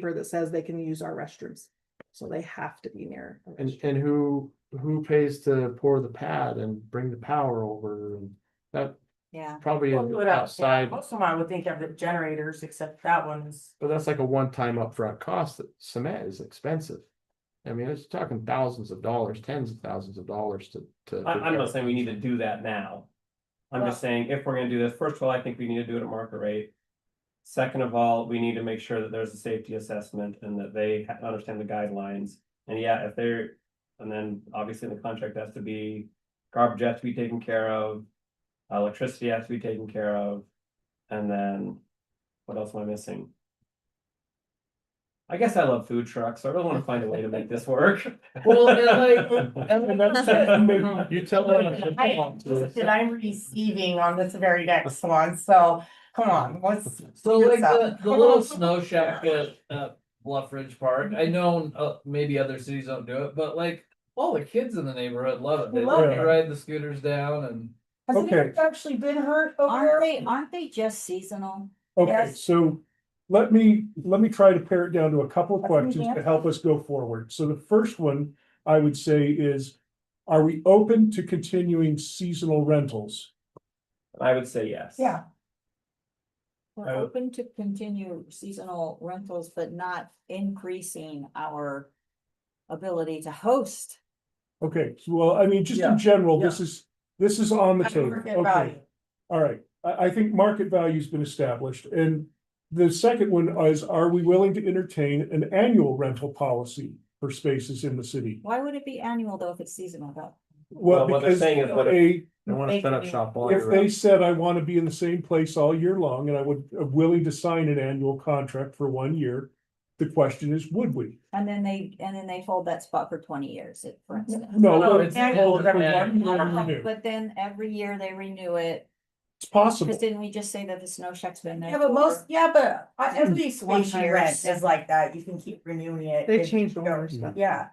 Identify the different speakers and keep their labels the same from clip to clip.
Speaker 1: paper that says they can use our restrooms. So they have to be near. a
Speaker 2: And,
Speaker 1: restroom.
Speaker 2: and who, who pays to pour the pad and bring the power over and that
Speaker 3: Yeah,
Speaker 2: probably
Speaker 4: Well,
Speaker 2: is
Speaker 4: put out- yeah,
Speaker 2: outside,
Speaker 4: Most of them I would think of the generators, except that one's,
Speaker 2: but that's like a one-time upfront cost that cement is expensive. I mean, it's talking thousands of dollars, tens of thousands of dollars to, to.
Speaker 5: I, I'm not saying we need to do that now. I'm just saying, if we're gonna do this, first of all, I think we need to do it at market rate. Second of all, we need to make sure that there's a safety assessment and that they ha- understand the guidelines. And yeah, if they're, and then obviously the contract has to be, garbage has to be taken care of. Electricity has to be taken care of. And then, what else am I missing? I guess I love food trucks, so I really wanna find a way to make this work.
Speaker 4: Well, and
Speaker 2: You tell
Speaker 4: I- that
Speaker 2: them.
Speaker 4: I'm receiving on this very next one, so come on, let's.
Speaker 6: So
Speaker 4: Good
Speaker 6: like the,
Speaker 4: stuff.
Speaker 6: the little snow shack at, at Uh, Bluff Ridge Park, I know, uh, maybe other cities don't do it, but like. All the kids in the neighborhood love it, they
Speaker 4: They love
Speaker 6: love
Speaker 4: it.
Speaker 6: to ride the scooters down and.
Speaker 4: Has anyone actually been hurt
Speaker 3: aren't
Speaker 4: over?
Speaker 3: they, aren't they just seasonal?
Speaker 7: Okay,
Speaker 4: Yes.
Speaker 7: so let me, let me try to pare it down to a couple of
Speaker 4: That's an
Speaker 7: questions to
Speaker 4: example.
Speaker 7: help us go forward. So the first one I would say is, are we open to continuing seasonal rentals?
Speaker 5: I would say yes.
Speaker 4: Yeah,
Speaker 3: We're
Speaker 8: Uh,
Speaker 3: open to continue seasonal rentals, but not increasing our ability to host.
Speaker 7: Okay, so, well, I mean, just
Speaker 6: Yeah,
Speaker 7: in general, this is, this is on the
Speaker 4: at the
Speaker 7: table.
Speaker 4: market
Speaker 7: Okay,
Speaker 4: value.
Speaker 7: all right. I, I think market value's been established. And the second one is, are we willing to entertain an annual rental policy for spaces in the city?
Speaker 3: Why would it be annual though if it's seasonal though?
Speaker 5: Well, what they're
Speaker 7: because
Speaker 5: saying is what if-
Speaker 7: a-
Speaker 2: They wanna set up shop all
Speaker 7: If
Speaker 2: year
Speaker 7: they
Speaker 2: round.
Speaker 7: said, I wanna be in the same place all year long, and I would, am willing to sign an annual contract for one year. The question is, would we?
Speaker 3: And then they, and then they hold that spot for twenty years, if- for
Speaker 1: Mm-hmm.
Speaker 3: instance. Um,
Speaker 7: No,
Speaker 4: No,
Speaker 7: but
Speaker 4: it's annual,
Speaker 7: it's-
Speaker 4: everyone.
Speaker 7: Yeah.
Speaker 3: But then every year they renew it,
Speaker 7: it's
Speaker 3: cause
Speaker 7: possible.
Speaker 3: didn't we just say that the snow shack's been there?
Speaker 4: Yeah, but most,
Speaker 3: for-
Speaker 4: yeah, but I-
Speaker 7: Hmm.
Speaker 4: every
Speaker 3: One
Speaker 4: space you
Speaker 3: year.
Speaker 4: rent is like that, you can keep renewing it.
Speaker 1: They
Speaker 4: if-
Speaker 1: changed all their stuff.
Speaker 4: Yeah,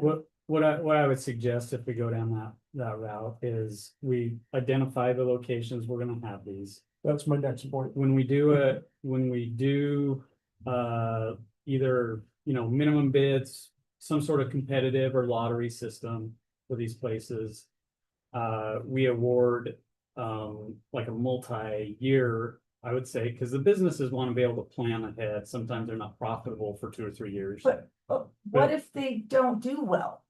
Speaker 8: What, what I, what I would suggest if we go down that, that route is we identify the locations we're gonna have these.
Speaker 7: That's my next point.
Speaker 8: When we do a when we do, uh, either, you know, minimum bids, some sort of competitive or lottery system for these places. Uh, we award, um, like a multi-year, I would say, because the businesses want to be able to plan ahead. Sometimes they're not profitable for two or three years.
Speaker 4: But- but what if they don't do well?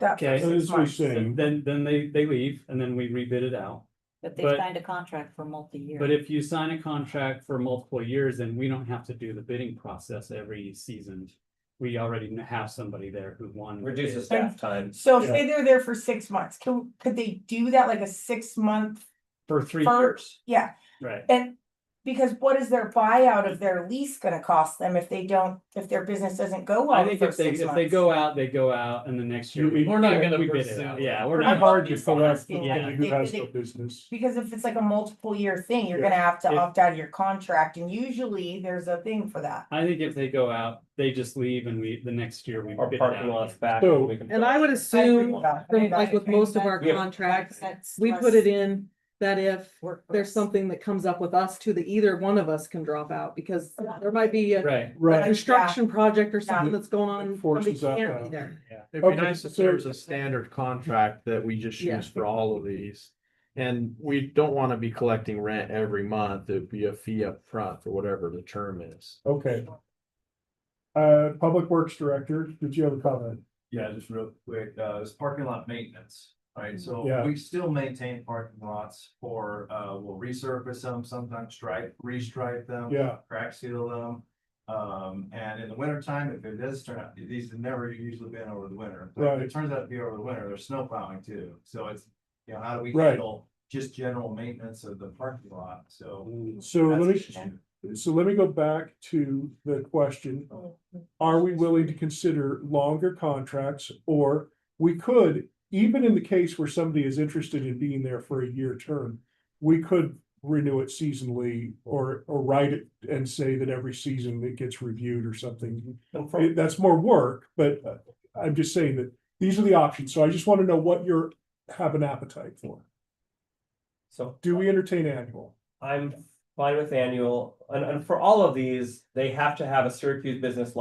Speaker 4: That
Speaker 8: Okay.
Speaker 4: first six
Speaker 7: As we
Speaker 4: months.
Speaker 7: say.
Speaker 8: Then, then- then they, they leave and then we rebid it out.
Speaker 3: But they
Speaker 8: but-
Speaker 3: signed a contract for multi-year.
Speaker 8: But if you sign a contract for multiple years, then we don't have to do the bidding process every season. We already have somebody there who won. the
Speaker 5: Reduces
Speaker 8: bid.
Speaker 5: staff time.
Speaker 4: So say they're there for six months, can, could they do that like a six month,
Speaker 8: For three
Speaker 4: For-
Speaker 8: years,
Speaker 4: yeah,
Speaker 8: right?
Speaker 4: And because what is their buyout of their lease gonna cost them if they don't, if their business doesn't go well?
Speaker 8: I
Speaker 4: the
Speaker 8: think if
Speaker 4: first
Speaker 8: they,
Speaker 4: six
Speaker 8: if they
Speaker 4: months?
Speaker 8: go out, they go out and the next year.
Speaker 7: You-
Speaker 8: we-
Speaker 6: We're not gonna
Speaker 8: we bid it
Speaker 6: pursue
Speaker 8: out.
Speaker 6: it.
Speaker 8: Yeah, we're
Speaker 4: Pretty
Speaker 8: not.
Speaker 7: I've argued
Speaker 4: just
Speaker 7: for that,
Speaker 4: asking,
Speaker 7: for
Speaker 4: yeah.
Speaker 7: somebody who
Speaker 4: They-
Speaker 7: has
Speaker 4: they-
Speaker 7: no business.
Speaker 4: Because if it's like a multiple year thing, you're
Speaker 7: Yeah.
Speaker 4: gonna have to
Speaker 8: If-
Speaker 4: opt out of your contract and usually there's a thing for that.
Speaker 8: I think if they go out, they just leave and we, the next year we
Speaker 5: Our
Speaker 8: bid it out.
Speaker 5: parking lots back.
Speaker 7: So-
Speaker 5: we can-
Speaker 1: And I would
Speaker 4: I agree with
Speaker 1: assume,
Speaker 4: that. I
Speaker 1: from-
Speaker 4: think
Speaker 1: like
Speaker 4: that-
Speaker 1: with most of our
Speaker 5: Yeah.
Speaker 1: contracts,
Speaker 3: That's
Speaker 1: we put
Speaker 3: less
Speaker 1: it in that if
Speaker 3: work for
Speaker 1: there's
Speaker 3: us.
Speaker 1: something that comes up with us too, that either one of us can drop out because there might be a
Speaker 8: Right.
Speaker 7: Right,
Speaker 1: construction project or something that's going on. and somebody
Speaker 7: Forces up,
Speaker 1: can't be
Speaker 7: uh,
Speaker 1: there.
Speaker 2: It'd be
Speaker 7: Okay,
Speaker 2: nice if
Speaker 7: so-
Speaker 2: there's a standard contract that we just
Speaker 1: Yeah.
Speaker 2: use for all of these. And we don't wanna be collecting rent every month, it'd be a fee up front for whatever the term is.
Speaker 7: okay. Uh, Public Works Director, did you have a comment?
Speaker 9: Yeah, just real quick, uh, it's parking lot maintenance, right? So
Speaker 7: Yeah.
Speaker 9: we still maintain parking lots for, uh, we'll resurface them, sometimes stripe, restripe them.
Speaker 7: Yeah,
Speaker 9: Crack seal them. Um, and in the winter time, if it does turn out, these have never usually been over the winter. But if
Speaker 7: Right.
Speaker 9: it turns out to be over the winter, there's snow plowing too. So it's, you know, how do we
Speaker 7: Right.
Speaker 9: handle just general maintenance of the parking lot? So.
Speaker 7: so let
Speaker 9: that's an
Speaker 7: me,
Speaker 9: issue.
Speaker 7: so let me go back to the question are we willing to consider longer contracts? Or we could, even in the case where somebody is interested in being there for a year term, we could renew it seasonally or, or write it and say that every season it gets reviewed or something.
Speaker 5: And from-
Speaker 7: It- That's more work, but uh, I'm just saying that these are the options. So I just want to know what you're, have an appetite for.
Speaker 5: So
Speaker 7: Do we entertain annual?
Speaker 5: I'm fine with annual, and, and for all of these, they have to have a Syracuse business